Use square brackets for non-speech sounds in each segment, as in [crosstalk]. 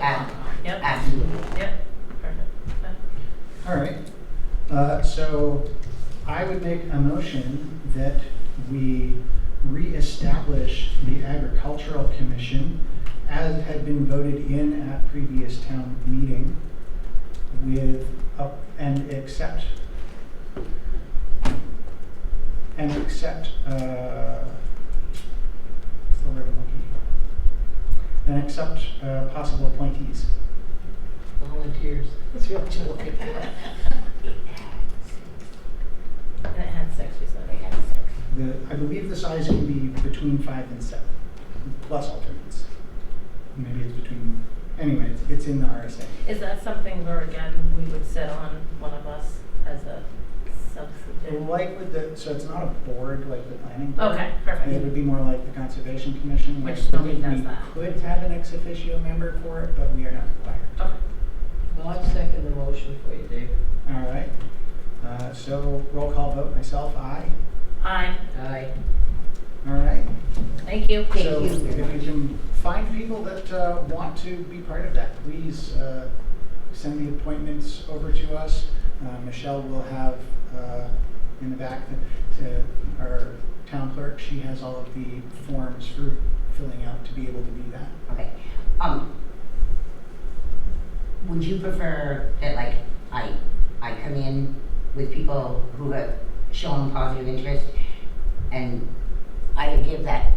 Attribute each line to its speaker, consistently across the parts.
Speaker 1: Ab-
Speaker 2: Yep,
Speaker 1: Absolutely.
Speaker 2: yep, perfect. Okay.
Speaker 3: All right. Uh, So I would make a motion that we reestablish the Agricultural Commission as had been voted in at previous town meeting with, up- and accept, and accept, uh, what's the word I'm looking for? And accept uh, possible appointees.
Speaker 1: Volunteers. That's what you're looking for.
Speaker 2: And it had six, you said.
Speaker 3: The, I believe the size can be between five and seven, plus alternates. Maybe it's between, anyway, it's, it's in the RSA.
Speaker 2: Is that something where, again, we would sit on one of us as a substitute?
Speaker 3: Like with the, so it's not a board like the planning. board.
Speaker 2: Okay,
Speaker 3: It would
Speaker 2: perfect.
Speaker 3: be more like the Conservation Commission. where
Speaker 2: Which nobody
Speaker 3: we-
Speaker 2: does that.
Speaker 3: We could have an ex officio member for it, but we are not required.
Speaker 2: Okay.
Speaker 1: [laughs] Well, I second the motion for you, Dave.
Speaker 3: All right. Uh, so roll call vote, myself, aye.
Speaker 2: Aye,
Speaker 1: Aye.
Speaker 3: All right.
Speaker 2: thank you.
Speaker 1: Thank
Speaker 3: So
Speaker 1: you
Speaker 3: if you
Speaker 1: very much.
Speaker 3: can find people that uh, want to be part of that, please uh, send the appointments over to us. Uh, Michelle will have uh, in the back the- to our town clerk, she has all of the forms for filling out to be able to do that.
Speaker 4: Okay. Um, would you prefer that like I, I come in with people who have shown positive interest and either give that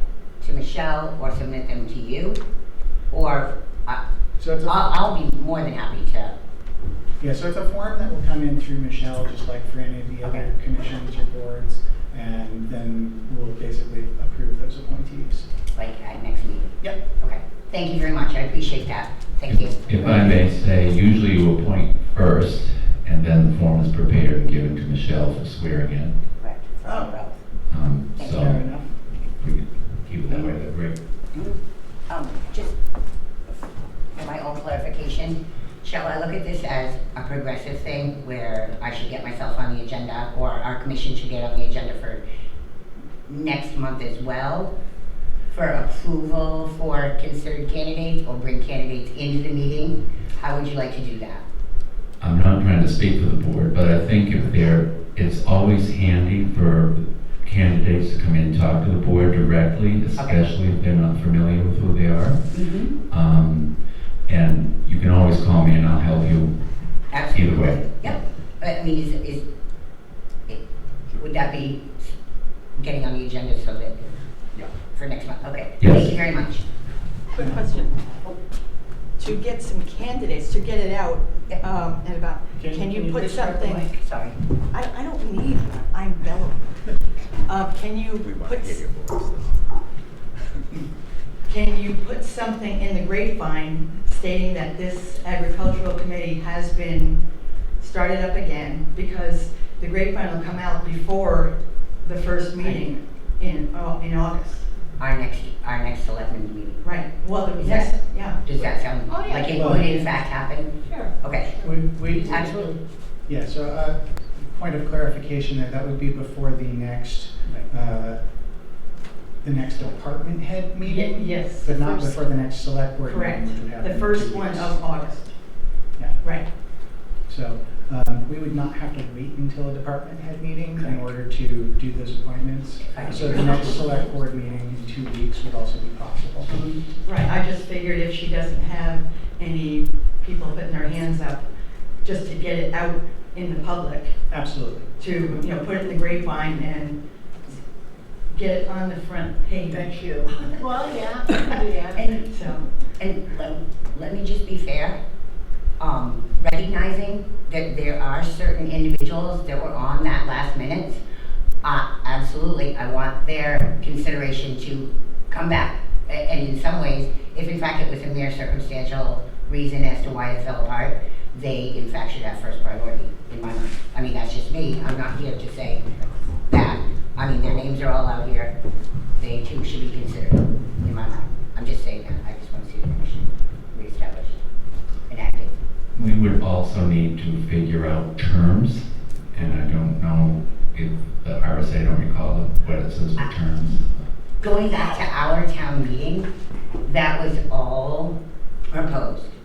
Speaker 4: to Michelle or submit them to you? Or I,
Speaker 3: So it's
Speaker 4: I'll,
Speaker 1: Ah.
Speaker 3: a,
Speaker 4: I'll be more than happy to,
Speaker 3: yeah, so it's a form that will come in through Michelle, just like for any of the other
Speaker 4: Okay.
Speaker 3: commissions or boards. And then we'll basically approve those appointees.
Speaker 4: like, at next meeting.
Speaker 3: Yep.
Speaker 4: Okay. Thank you very much. I appreciate that. Thank you.
Speaker 5: If I may say, usually you appoint first, and then the form is prepared and given to Michelle for swearing in.
Speaker 4: Correct.
Speaker 3: Oh.
Speaker 5: Um,
Speaker 3: Fair
Speaker 5: So
Speaker 3: enough.
Speaker 5: we could keep it that way, that'd be great.
Speaker 4: Um, just for my own clarification, shall I look at this as a progressive thing where I should get myself on the agenda or our commission should get on the agenda for next month as well for approval for considered candidates or bring candidates into the meeting? How would you like to do that?
Speaker 5: I'm not trying to speak for the board, but I think if there, it's always handy for candidates to come in and talk to the board directly, especially if they're not familiar with who they are.
Speaker 4: Mm-hmm.
Speaker 5: Um, And you can always call me and I'll help you
Speaker 4: Absolutely.
Speaker 5: either way.
Speaker 4: Yep, but I mean, is, is, it- would that be getting on the agenda so that, for next month? Okay.
Speaker 5: Yes.
Speaker 4: Thank you very much.
Speaker 6: Quick question. To get some candidates, to get it out um, and about,
Speaker 3: Can-
Speaker 6: can
Speaker 3: can
Speaker 6: you
Speaker 3: you
Speaker 6: put
Speaker 3: just drop the
Speaker 6: something?
Speaker 4: Sorry.
Speaker 6: I, I don't need, I'm bellow. Uh, Can you put, [laughs] can you put something in the grapevine stating that this agricultural committee has been started up again? Because the grapevine will come out before the first meeting in, au- in August.
Speaker 4: Our next, our next selectmen's meeting.
Speaker 6: Right, well, the next, yeah.
Speaker 4: Does that sound
Speaker 1: Oh, yeah.
Speaker 4: like it
Speaker 3: Well-
Speaker 4: would in fact happen?
Speaker 1: Sure.
Speaker 4: Okay,
Speaker 3: We, we,
Speaker 4: absolutely.
Speaker 3: Yeah, so uh point of clarification there, that would be before the next, uh, the next department head
Speaker 6: Ye-
Speaker 3: meeting?
Speaker 6: Yes.
Speaker 3: But not
Speaker 6: First-
Speaker 3: before the next select board meeting,
Speaker 6: Correct,
Speaker 3: which would happen.
Speaker 6: the
Speaker 3: in
Speaker 6: first
Speaker 3: two
Speaker 6: one
Speaker 3: weeks.
Speaker 6: of August.
Speaker 3: Yeah.
Speaker 6: Right,
Speaker 3: So um, we would not have to wait until a department head meeting in order to do those appointments.
Speaker 4: Correct.
Speaker 3: So the next select board meeting in two weeks would also be possible.
Speaker 6: Mm-hmm. right, I just figured if she doesn't have any people putting their hands up, just to get it out in the public,
Speaker 3: Absolutely.
Speaker 6: to, you know, put it in the grapevine and get it on the front page.
Speaker 3: Thank
Speaker 6: you. [laughs]
Speaker 1: Well, yeah, we can do that.
Speaker 4: And,
Speaker 6: So,
Speaker 4: and let, let me just be fair. Um, recognizing that there are certain individuals that were on that last minute, uh, absolutely, I want their consideration to come back. A- And in some ways, if in fact it was a mere circumstantial reason as to why it fell apart, they in fact should have first priority in my mind. I mean, that's just me, I'm not here to say that. I mean, their names are all out here, they too should be considered in my mind. I'm just saying that, I just want to see the commission reestablished and active.
Speaker 5: We would also need to figure out terms, and I don't know if the RSA, I don't recall what it says for terms.
Speaker 4: Going back to our town meeting, that was all proposed.